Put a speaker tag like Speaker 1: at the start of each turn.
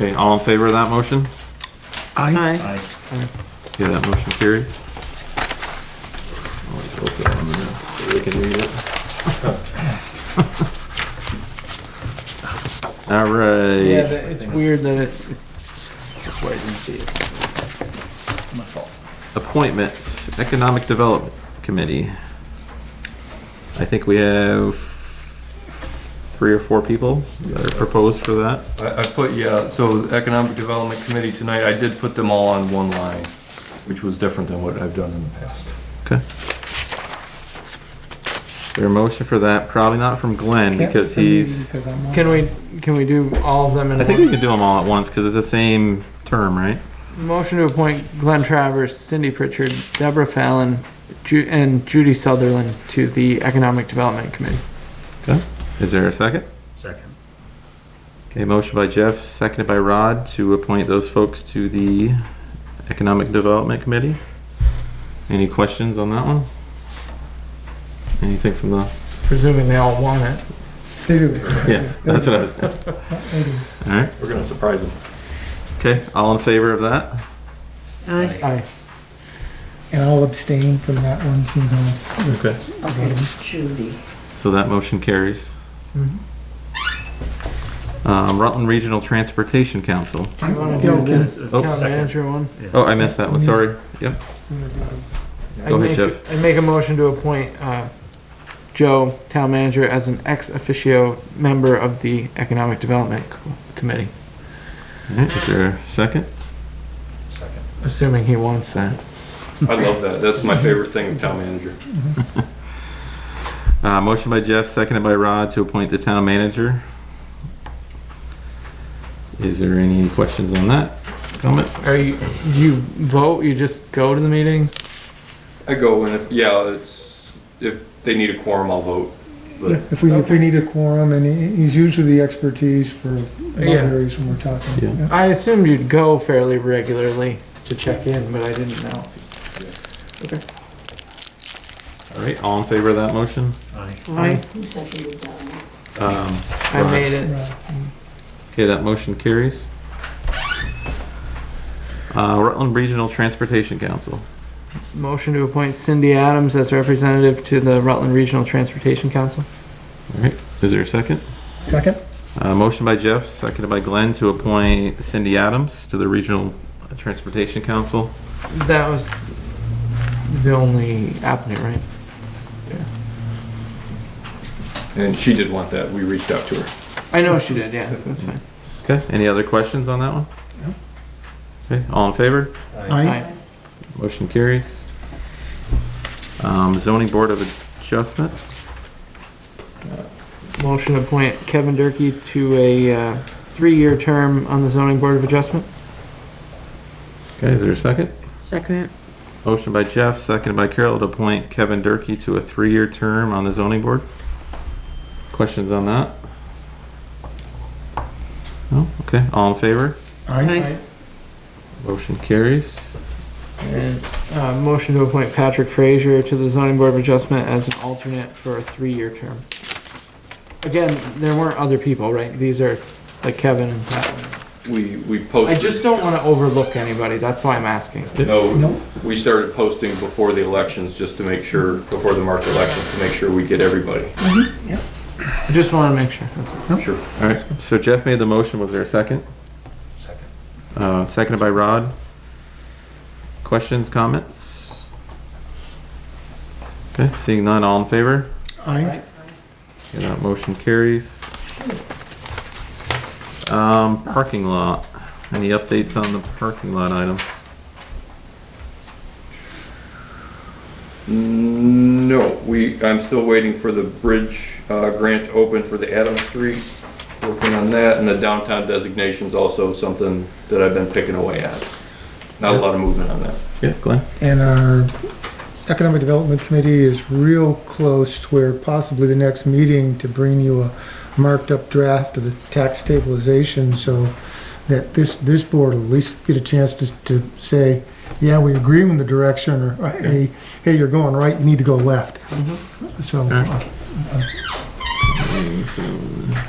Speaker 1: Okay, all in favor of that motion?
Speaker 2: Aye.
Speaker 3: Aye.
Speaker 1: Okay, that motion carried. I'll just open it on the net so they can read it. All
Speaker 2: Yeah,
Speaker 1: right,
Speaker 2: that- it's weird that it, that's why I didn't see it.
Speaker 3: My fault.
Speaker 1: appointments, Economic Development Committee. I think we have three or four people that are proposed for that.
Speaker 4: I, I put, yeah, so the Economic Development Committee tonight, I did put them all on one line, which was different than what I've done in the past.
Speaker 1: Okay. Their motion for that, probably not from Glenn because he's,
Speaker 2: Can we, can we do all of them
Speaker 1: I
Speaker 2: in
Speaker 1: think we
Speaker 2: one?
Speaker 1: can do them all at once because it's the same term, right?
Speaker 2: Motion to appoint Glenn Travers, Cindy Pritchard, Deborah Fallon, Ju- and Judy Sutherland to the Economic Development Committee.
Speaker 1: Is there a second?
Speaker 3: Second.
Speaker 1: Okay, motion by Jeff, seconded by Rod to appoint those folks to the Economic Development Committee. Any questions on that one? Anything from the,
Speaker 2: Presuming they all want it.
Speaker 5: They do.
Speaker 1: yeah, that's what I was,
Speaker 5: They do.
Speaker 1: all right,
Speaker 4: We're gonna surprise them.
Speaker 1: okay, all in favor of that?
Speaker 3: Aye.
Speaker 2: Aye.
Speaker 5: And I'll abstain from that one, so you know.
Speaker 1: Okay.
Speaker 6: Okay, Judy.
Speaker 1: So that motion carries. Um, Rutland Regional Transportation Council.
Speaker 2: Do you wanna
Speaker 5: Yeah,
Speaker 2: do
Speaker 5: okay.
Speaker 2: this
Speaker 1: Oh,
Speaker 2: town manager one?
Speaker 1: Oh, I missed that one, sorry. Yep,
Speaker 2: I
Speaker 1: Go ahead,
Speaker 2: make-
Speaker 1: Jeff.
Speaker 2: I make a motion to appoint, uh, Joe, town manager, as an ex officio member of the Economic Development Co- Committee,
Speaker 1: All right, is there a second?
Speaker 3: Second.
Speaker 2: assuming he wants that.
Speaker 4: I love that. That's my favorite thing of town manager.
Speaker 1: Uh, motion by Jeff, seconded by Rod to appoint the town manager. Is there any questions on that? Comment?
Speaker 2: Are you, you vote, you just go to the meetings?
Speaker 4: I go and if, yeah, it's, if they need a quorum, I'll vote.
Speaker 5: Yeah, If we, if we need a quorum, and he- he's usually the expertise for lot
Speaker 2: Yeah.
Speaker 5: areas when we're
Speaker 1: Yeah.
Speaker 5: talking. yeah.
Speaker 2: I assumed you'd go fairly regularly to check in, but I didn't know.
Speaker 1: All right, all in favor of that motion?
Speaker 3: Aye.
Speaker 2: Aye.
Speaker 6: Who seconded that one?
Speaker 1: Um,
Speaker 2: I made it.
Speaker 5: Right.
Speaker 1: okay, that motion carries. Uh, Rutland Regional Transportation Council.
Speaker 2: Motion to appoint Cindy Adams as representative to the Rutland Regional Transportation Council.
Speaker 1: All right, is there a second?
Speaker 5: Second?
Speaker 1: Uh, motion by Jeff, seconded by Glenn to appoint Cindy Adams to the Regional Transportation Council.
Speaker 2: That was the only applicant, right?
Speaker 4: And she did want that. We reached out to her.
Speaker 2: I know she did, yeah, that's fine.
Speaker 1: Okay, any other questions on that one? Okay, all in favor?
Speaker 5: Aye.
Speaker 2: Aye.
Speaker 1: Motion carries. Um, zoning board of adjustment,
Speaker 2: Motion to appoint Kevin Durkey to a, uh, three-year term on the zoning board of adjustment.
Speaker 1: okay, is there a second?
Speaker 7: Second,
Speaker 1: Motion by Jeff, seconded by Carol to appoint Kevin Durkey to a three-year term on the zoning board. Questions on that? No, okay, all in favor?
Speaker 5: Aye.
Speaker 2: Aye.
Speaker 1: Motion carries.
Speaker 2: And, uh, motion to appoint Patrick Frazier to the zoning board of adjustment as an alternate for a three-year term. Again, there weren't other people, right? These are, like Kevin and Pat.
Speaker 4: We, we
Speaker 2: I
Speaker 4: posted.
Speaker 2: just don't wanna overlook anybody, that's why I'm asking.
Speaker 4: No,
Speaker 5: No.
Speaker 4: we started posting before the elections, just to make sure, before the March elections, to make sure we get everybody.
Speaker 2: I just wanna make sure, that's all.
Speaker 4: Sure.
Speaker 1: All right, so Jeff made the motion, was there a second?
Speaker 3: Second.
Speaker 1: Uh, seconded by Rod. Questions, comments? Okay, seeing none, all in favor?
Speaker 5: Aye.
Speaker 1: Okay, that motion carries. Um, parking lot. Any updates on the parking lot item?
Speaker 4: Mm, No, we, I'm still waiting for the bridge, uh, grant to open for the Adams Street, working on that, and the downtown designation's also something that I've been picking away at. Not a lot of movement on that.
Speaker 1: Yeah, Glenn?
Speaker 5: And our Economic Development Committee is real close to where possibly the next meeting to bring you a marked-up draft of the tax stabilization, so that this, this board will at least get a chance to, to say, yeah, we agree with the direction, or uh, hey, hey, you're going right, you uh, need to go left. So,
Speaker 1: Okay.
Speaker 5: uh,
Speaker 1: So